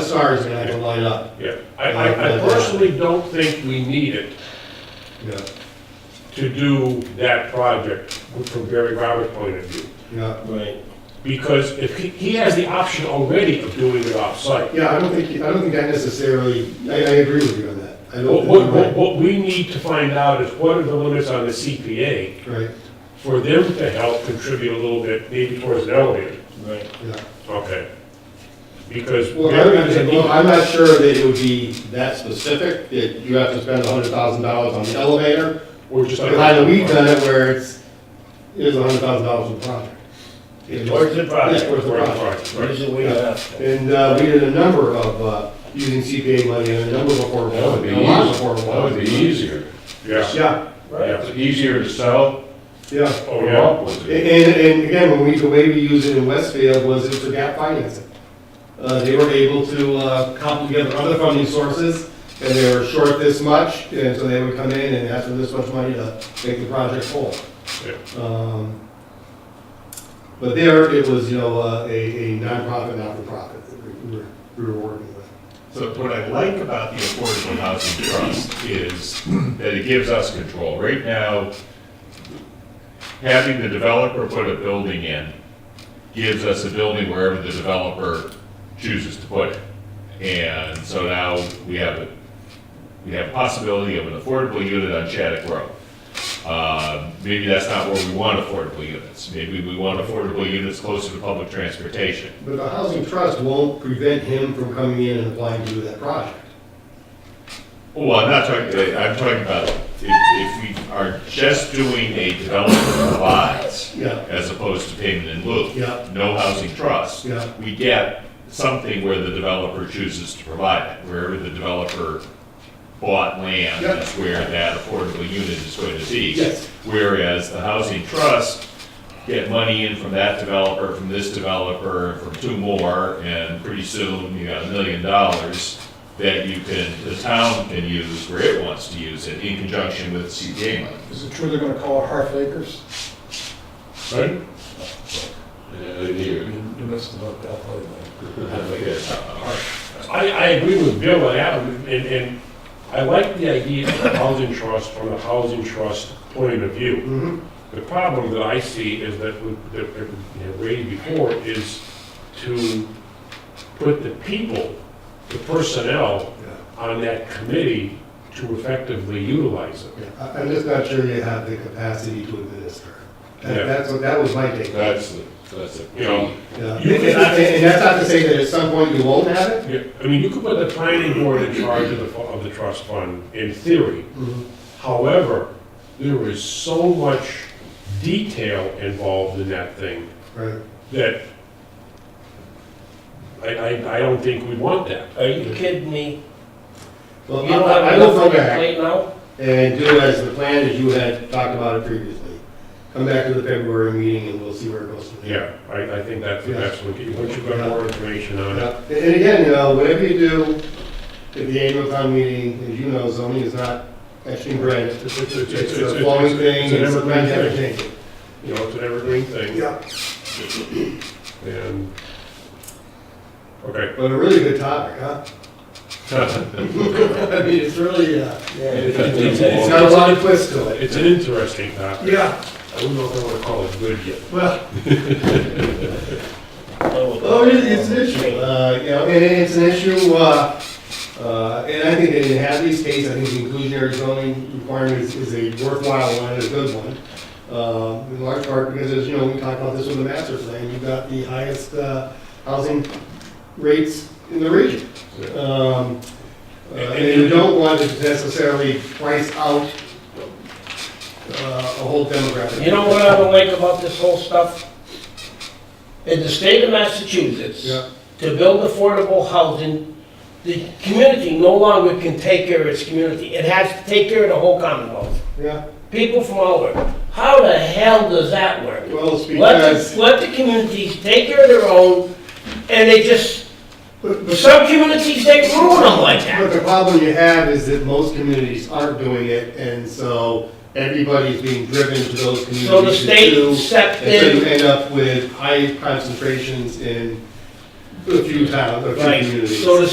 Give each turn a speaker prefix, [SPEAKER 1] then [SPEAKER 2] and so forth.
[SPEAKER 1] SR is gonna have to light up,
[SPEAKER 2] Yeah, I, I, I personally don't think we need it
[SPEAKER 1] yeah,
[SPEAKER 2] to do that project from Barry Roberts' point of view.
[SPEAKER 1] yeah.
[SPEAKER 3] Right.
[SPEAKER 2] Because if he, he has the option already of doing it off-site.
[SPEAKER 1] Yeah, I don't think, I don't think I necessarily, I, I agree with you on that. I
[SPEAKER 2] What,
[SPEAKER 1] don't
[SPEAKER 2] what, what-
[SPEAKER 1] think,
[SPEAKER 2] what we need to find out is what are the limits on the CPA
[SPEAKER 1] you're right,
[SPEAKER 2] for them to help contribute a little bit, maybe towards an elevator.
[SPEAKER 3] Right.
[SPEAKER 1] right, yeah.
[SPEAKER 2] Okay. Because.
[SPEAKER 1] Well, I
[SPEAKER 2] Barry-
[SPEAKER 1] understand, well, I'm not sure that it would be that specific, that you have to spend hundred thousand dollars on the elevator.
[SPEAKER 2] Or just.
[SPEAKER 1] But I know we've done it where it's, it is hundred thousand dollars a project.
[SPEAKER 3] It's towards the project.
[SPEAKER 1] Yeah, towards the
[SPEAKER 2] Right,
[SPEAKER 1] project.
[SPEAKER 2] right, right.
[SPEAKER 3] What is it we have?
[SPEAKER 1] And uh, we did a number of, uh, using CPA money on a number of affordable,
[SPEAKER 4] That would be
[SPEAKER 1] a lot of affordable.
[SPEAKER 4] easier, that would be
[SPEAKER 1] housing.
[SPEAKER 4] easier.
[SPEAKER 2] Yeah,
[SPEAKER 1] Yeah,
[SPEAKER 2] yeah,
[SPEAKER 4] It's easier to sell
[SPEAKER 1] yeah.
[SPEAKER 2] oh,
[SPEAKER 4] or
[SPEAKER 2] yeah,
[SPEAKER 4] up with it.
[SPEAKER 1] And, and again, when we, the way we used it in Westfield was it for gap financing. Uh, They were able to uh, cobble together other funding sources, and they were short this much, and so they would come in and ask for this much money to make the project whole.
[SPEAKER 2] yeah.
[SPEAKER 1] Um, But there, it was, you know, uh, a a nonprofit, not-for-profit that we were, we were working with.
[SPEAKER 5] So what I like about the Affordable Housing Trust is that it gives us control. Right now, having the developer put a building in gives us a building wherever the developer chooses to put it. And so now we have, a we have possibility of an affordable unit on Shattuck Road. Uh, Maybe that's not where we want affordable units. Maybe we want affordable units closer to public transportation.
[SPEAKER 1] But the housing trust won't prevent him from coming in and applying to do that project.
[SPEAKER 5] Well, Oh, I'm not talking, I'm talking about if, if we are just doing a developer provides
[SPEAKER 1] Yeah.
[SPEAKER 5] as opposed to payment in lieu.
[SPEAKER 1] Yeah.
[SPEAKER 5] No housing trust.
[SPEAKER 1] Yeah.
[SPEAKER 5] We get something where the developer chooses to provide it, wherever the developer bought land,
[SPEAKER 1] Yeah.
[SPEAKER 5] that's where that affordable unit is going to be.
[SPEAKER 1] Yes.
[SPEAKER 5] Whereas the housing trust get money in from that developer, from this developer, from two more, and pretty soon you got a million dollars that you can, the town can use where it wants to use it in conjunction with CPA money.
[SPEAKER 6] Is it true they're gonna call it half acres?
[SPEAKER 2] Right?
[SPEAKER 4] Yeah, here.
[SPEAKER 6] You missed about that lately.
[SPEAKER 2] I, I agree with Bill and Adam, and, and I like the idea of the housing trust from the housing trust point of view.
[SPEAKER 1] Mhm.
[SPEAKER 2] The problem that I see is that, we- that we have raised before, is to put the people, the personnel on that committee to effectively utilize it.
[SPEAKER 1] Yeah, I- I'm just not sure you have the capacity to administer.
[SPEAKER 2] Yeah.
[SPEAKER 1] That- That's what, that was my take. Yeah.
[SPEAKER 4] That's, the- that's a
[SPEAKER 2] You know,
[SPEAKER 1] And
[SPEAKER 2] You-
[SPEAKER 1] and that's not to say that at some point you won't have it.
[SPEAKER 2] Yeah, I mean, you could put the planning board in charge of the, fu- of the trust fund, in theory. However, there is so much detail involved in that thing
[SPEAKER 1] Right.
[SPEAKER 2] that I, I, I don't think we want that.
[SPEAKER 3] Are you kidding me? You
[SPEAKER 1] Well,
[SPEAKER 3] don't
[SPEAKER 1] I-
[SPEAKER 3] have
[SPEAKER 1] I will
[SPEAKER 3] enough
[SPEAKER 1] go
[SPEAKER 3] on your
[SPEAKER 1] back
[SPEAKER 3] plate now?
[SPEAKER 1] and do as the plan as you had talked about it previously. Come back to the February meeting and we'll see where it goes from there.
[SPEAKER 2] Yeah, I, I think that's, that's what, once you've got more information on it.
[SPEAKER 1] Yeah. And and again, you know, whatever you do at the annual town meeting, as you know, zoning is not actually granted.
[SPEAKER 2] It's, it's, it's,
[SPEAKER 1] It's
[SPEAKER 2] it's,
[SPEAKER 1] a flowing
[SPEAKER 2] it's
[SPEAKER 1] thing,
[SPEAKER 2] an
[SPEAKER 1] it's a
[SPEAKER 2] evergreen thing,
[SPEAKER 1] dynamic thing.
[SPEAKER 2] you know, it's an evergreen thing,
[SPEAKER 1] Yeah.
[SPEAKER 2] and, okay.
[SPEAKER 1] But a really good topic, huh? I mean, it's really, uh, it's got a lot of twist to it.
[SPEAKER 2] It's an interesting topic.
[SPEAKER 1] Yeah,
[SPEAKER 2] I don't know if I wanna call it good yet.
[SPEAKER 1] well, well, it- it's an issue, uh, you know, and it's an issue, uh, uh, and I think in half these cases, I think the inclusionary zoning requirement is- is a worthwhile one, and a good one. Uh, in large part because, as you know, we talked about this with the master plan, you've got the highest, uh, housing rates in the region. Um, uh, And you don't want to necessarily price out uh, a whole demographic.
[SPEAKER 3] You know what I don't like about this whole stuff? In the state of Massachusetts,
[SPEAKER 1] Yeah.
[SPEAKER 3] to build affordable housing, the community no longer can take care of its community. It has to take care of the whole Commonwealth.
[SPEAKER 1] Yeah,
[SPEAKER 3] People from all over. How the hell does that work?
[SPEAKER 1] well, it's
[SPEAKER 3] Let
[SPEAKER 1] because,
[SPEAKER 3] the, let the communities take care of their own, and they just,
[SPEAKER 1] but but-
[SPEAKER 3] some communities, they ruin them like
[SPEAKER 1] but
[SPEAKER 3] that.
[SPEAKER 1] the problem you have is that most communities aren't doing it, and so everybody's being driven to those communities.
[SPEAKER 3] So the
[SPEAKER 1] to do,
[SPEAKER 3] state stepped
[SPEAKER 1] And so you
[SPEAKER 3] in,
[SPEAKER 1] end up with high concentrations in a few towns, a few
[SPEAKER 3] right,
[SPEAKER 1] communities.
[SPEAKER 3] so the